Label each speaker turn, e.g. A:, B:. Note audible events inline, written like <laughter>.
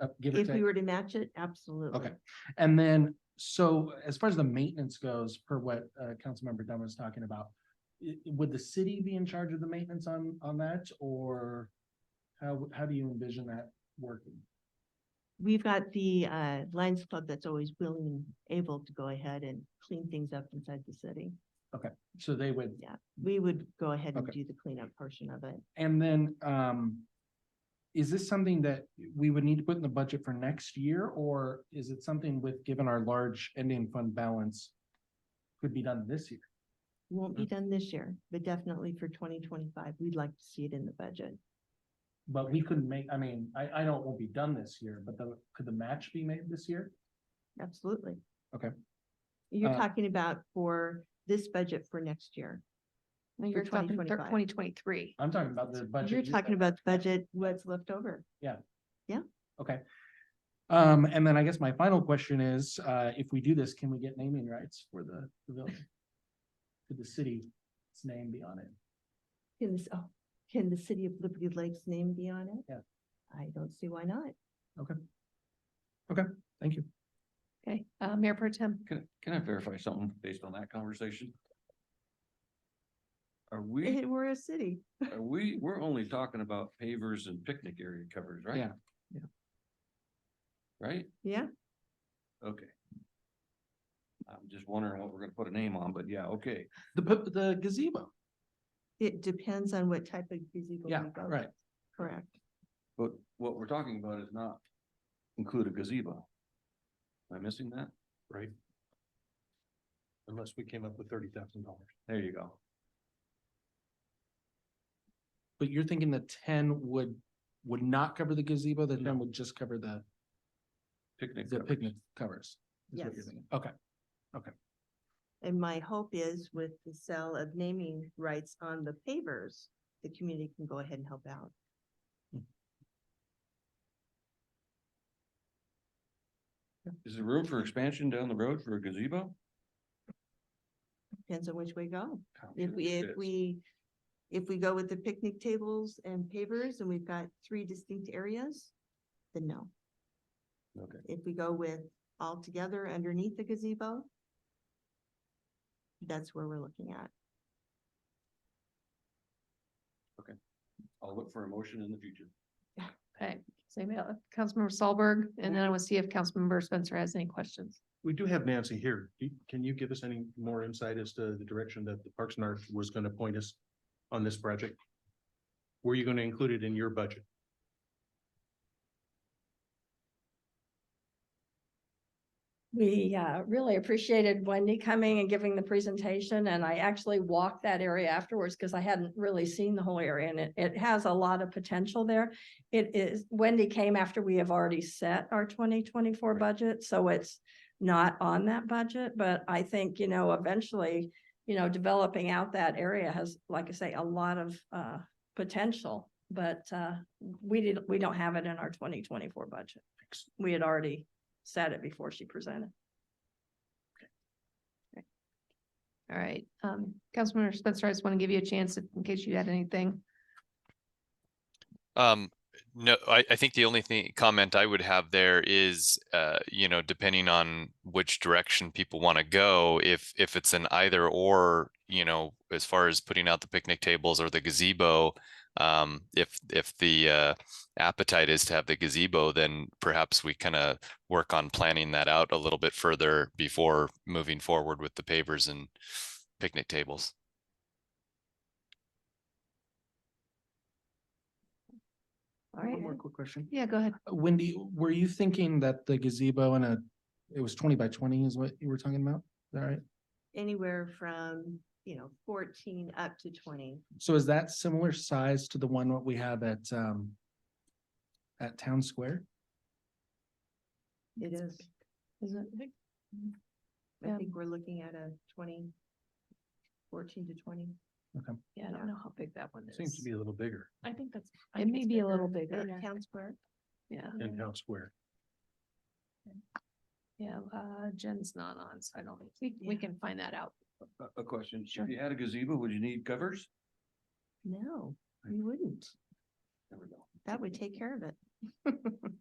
A: uh, give or
B: If we
A: take.
B: were to match it, absolutely.
A: Okay. And then, so as far as the maintenance goes, per what, uh, Councilmember Dunn was talking about, i- would the city be in charge of the maintenance on, on that, or how, how do you envision that working?
B: We've got the uh Lions Club that's always willing, and able to go ahead and clean things up inside the city.
A: So they would,
B: We would go ahead and
A: Okay.
B: do the cleanup portion of it.
A: and then, um, is this something that we would need to put in the budget for next year, or is it something with, given our large ending fund balance, could be done this year?
B: Won't
A: Mm.
B: be done this year, but definitely for twenty twenty-five, we'd like to see it in the budget.
A: But we couldn't make, I mean, I, I know it won't be done this year, but the, could the match be made this year?
B: Absolutely.
A: Okay.
B: You're
A: Uh,
B: talking about for this budget for next year.
C: No,
B: For
C: you're talking
B: 2025.
C: twenty twenty-three.
A: I'm talking about the budget.
B: You're
A: you-
B: talking about the budget, what's left over.
A: Um, and then I guess my final question is, uh, if we do this, can we get naming rights for the pavilion? Could the city's name be on it?
B: Can this, oh, can the city of Liberty Lakes name be on it?
A: Yeah.
B: I don't see why not.
A: Thank you.
C: Okay, uh, Mayor Pro Tem,
D: Can, can I verify something based on that conversation? Are we,
B: It- We're a city.
D: are we, we're only talking about pavers and picnic area covers, right?
A: Yeah,
D: yeah. Right?
B: Yeah,
D: Okay. I'm just wondering what we're gonna put a name on, but yeah, okay.
A: The, pa- the gazebo.
B: it depends on what type of gazebo. we
A: Yeah,
B: go with.
A: right.
B: Correct.
D: But what we're talking about is not include a gazebo. Am I missing that? Right. Unless we came up with thirty thousand dollars. There you go.
A: But you're thinking the ten would, would not cover the gazebo, the ten would just cover the,
D: Picnic.
A: the
D: covers.
A: picnic covers? is what you're
B: Yes.
A: thinking. Okay,
B: And my hope is with the sale of naming rights on the pavers, the community can go ahead and help out.
D: Is there room for expansion down the road for a gazebo?
B: Depends on which way we go.
D: I'm
B: If
D: sure
B: we,
D: there
B: if
D: is.
B: we, if we go with the picnic tables and pavers and we've got three distinct areas, then no.
D: Okay.
B: If we go with all together underneath the gazebo, that's where we're looking at.
D: I'll look for a motion in the future.
C: okay, so email it, uh, Councilmember Solberg, and then I want to see if Councilmember Spencer has any questions.
E: We do have Nancy here. Do- Can you give us any more insight as to the direction that the Parks and Arts was going to point us on this project? Were you going to include it in your budget?
F: We uh, really appreciated Wendy coming and giving the presentation, and I actually walked that area afterwards because I hadn't really seen the whole area, and it, it has a lot of potential there. It is, Wendy came after we have already set our twenty twenty-four budget, so it's not on that budget, but I think, you know, eventually, you know, developing out that area has, like I say, a lot of uh, potential, but uh, we did, we don't have it in our twenty twenty-four budget. We had already said it before she presented.
C: All right, um, Councilmember Spencer, I just want to give you a chance if- in case you had anything.
G: Um, no, I, I think the only thing comment I would have there is, uh, you know, depending on which direction people want to go, if if it's an either or, you know, as far as putting out the picnic tables or the gazebo, um, if if the uh, appetite is to have the gazebo, then perhaps we kind of work on planning that out a little bit further before moving forward with the pavers and picnic tables.
C: All right,
A: one more quick question.
C: yeah, go ahead.
A: Wendy, were you thinking that the gazebo and a, it was twenty by twenty is what you were talking about? Is that right?
B: Anywhere from, you know, fourteen up to twenty.
A: So is that similar size to the one what we have at, um, at Town Square?
B: It is,
C: Is it-
B: I
C: Yeah.
B: think we're looking at a twenty, fourteen to twenty.
F: Yeah, I
B: Yeah.
F: don't know how big that one is.
E: Seems to be a little bigger
F: I think that's.
C: It may be a little
B: Uh,
C: bigger,
B: Town square.
C: yeah,
E: in Town Square.
C: yeah, uh, Jen's not on, so I don't, we, we
B: Yeah.
C: can find that out.
D: A- A question,
C: Sure.
D: if you had a gazebo, would you need covers?
B: No, we wouldn't.
D: There we go.
B: That would take care of it. <laughs>